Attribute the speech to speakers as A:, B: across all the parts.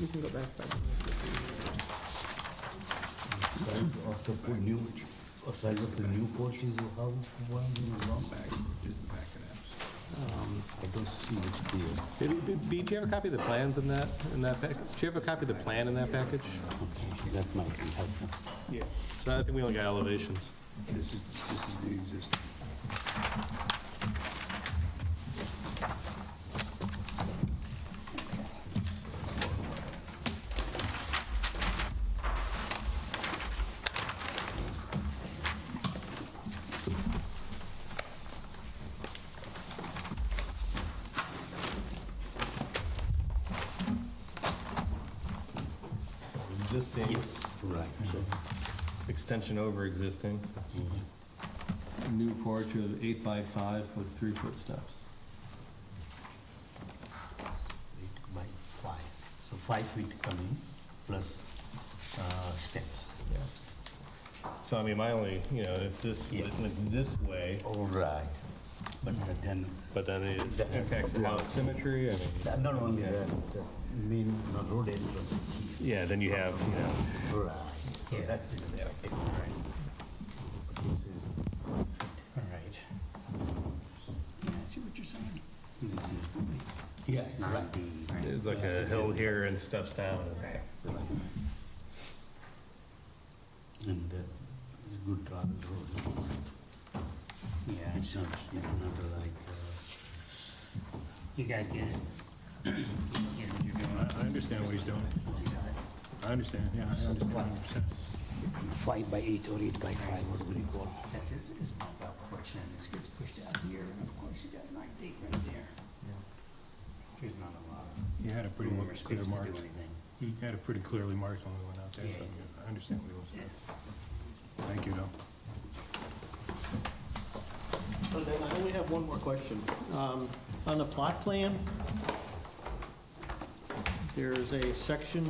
A: You can go back, but
B: Off the poor new, aside with the new porches of how, why you wrong back, just back it up. I don't see it here.
C: Did- did- Bee, do you have a copy of the plans in that, in that package? Do you have a copy of the plan in that package?
B: Okay, that might be helpful.
C: So I think we only got elevations.
B: This is, this is the existing.
C: So Existing,
B: Right.
C: extension over existing. New porch of eight by five with three-foot steps.
B: Eight by five, so five feet coming plus uh, steps.
C: Yeah. So I mean, my only, you know, if this
B: Yeah.
C: went this way,
B: All right, but then,
C: but then it impacts the house symmetry, I mean.
B: uh, not only
C: Yeah.
B: that, the main road entrance is here.
C: Yeah, then you have, you know,
B: Right, so
C: Yeah.
B: that is affected. But This is five feet.
D: All right. Yeah, I see what you're saying.
B: This is- Yeah, it's right.
C: there's like a hill here and steps down.
B: And the the uh, good travel road.
D: Yeah,
B: It's not, it's not like, uh,
D: you guys get it. You know, you're doing it.
E: I understand what he's doing. I understand, yeah, I understand 100%.
B: uh, five by eight or eight by five, what do you call?
D: That's, it's, it's not about porch, and this gets pushed out here, and of course, you got nine feet right there. There's not a lot of
E: You had a pretty
D: room or
E: clear
D: space to do
E: mark.
D: anything.
E: You had it pretty clearly marked when we went out there, so I understand what he was
D: Yeah.
E: saying. Thank you, though.
A: I only have one more question. Um, On the plot plan, there's a section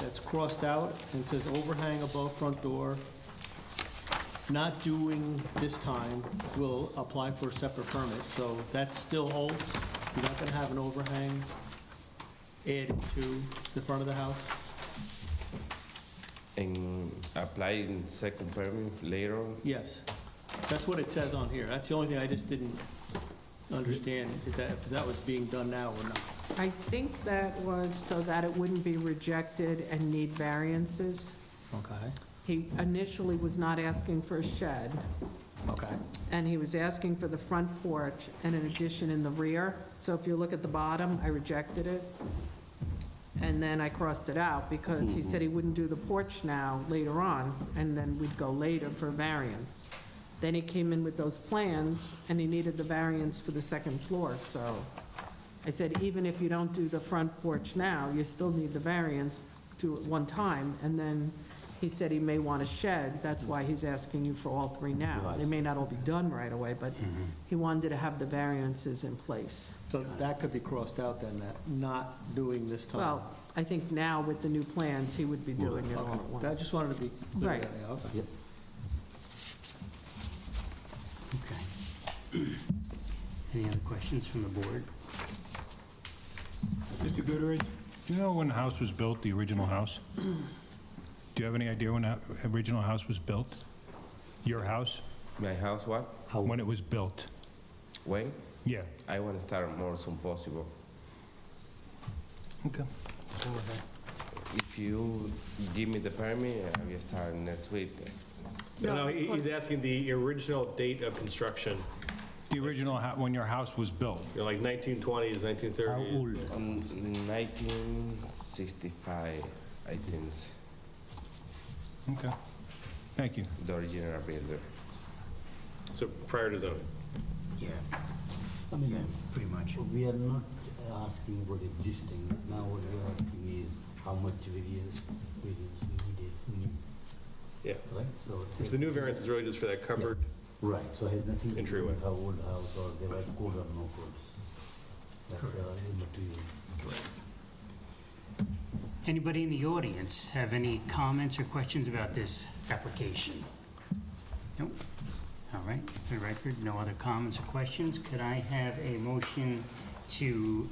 A: that's crossed out and says overhang above front door. Not doing this time will apply for a separate permit, so that still holds. You're not gonna have an overhang added to the front of the house?
F: And apply in second permit later on?
A: Yes, that's what it says on here. That's the only thing I just didn't understand, if that, if that was being done now or not.
G: I think that was so that it wouldn't be rejected and need variances.
A: Okay.
G: He initially was not asking for a shed,
A: Okay.
G: and he was asking for the front porch and an addition in the rear. So if you look at the bottom, I rejected it. And then I crossed it out because he said he wouldn't do the porch now, later on, and then we'd go later for variance. Then he came in with those plans, and he needed the variance for the second floor, so I said, even if you don't do the front porch now, you still need the variance to at one time. And then he said he may want a shed, that's why he's asking you for all three now. They may not all be done right away, but he wanted to have the variances in place.
A: So that could be crossed out then, that not doing this time?
G: Well, I think now with the new plans, he would be doing it all at
A: Okay, I
G: once.
A: just wanted to be clear.
G: Right.
A: yeah, okay.
D: Okay. Any other questions from the board?
E: Mr. Goodrich, do you know when the house was built, the original house? Do you have any idea when the original house was built? Your house?
F: My house, what?
E: When it was built?
F: When?
E: Yeah.
F: I want to start more soon possible.
E: Okay.
F: If you give me the permit, I will start next week.
C: No, he- he's asking the original date of construction,
E: The original, hou- when your house was built?
C: you know, like 1920s, 1930s.
F: Um, 1965, I think,
E: Okay. Thank you.
F: the original builder.
C: So prior to zoning.
D: Yeah,
B: I mean,
D: pretty much.
B: we are not asking about existing, now what we are asking is how much variance, variance needed, new,
C: Yeah.
B: right? So
C: So the new variance is really just for that covered,
B: Right, so it has nothing to do
C: Entryway.
B: with how old house or they were code or no codes. That's uh, immaterial.
D: Anybody in the audience have any comments or questions about this application? Nope. All right, for the record, no other comments or questions. Could I have a motion to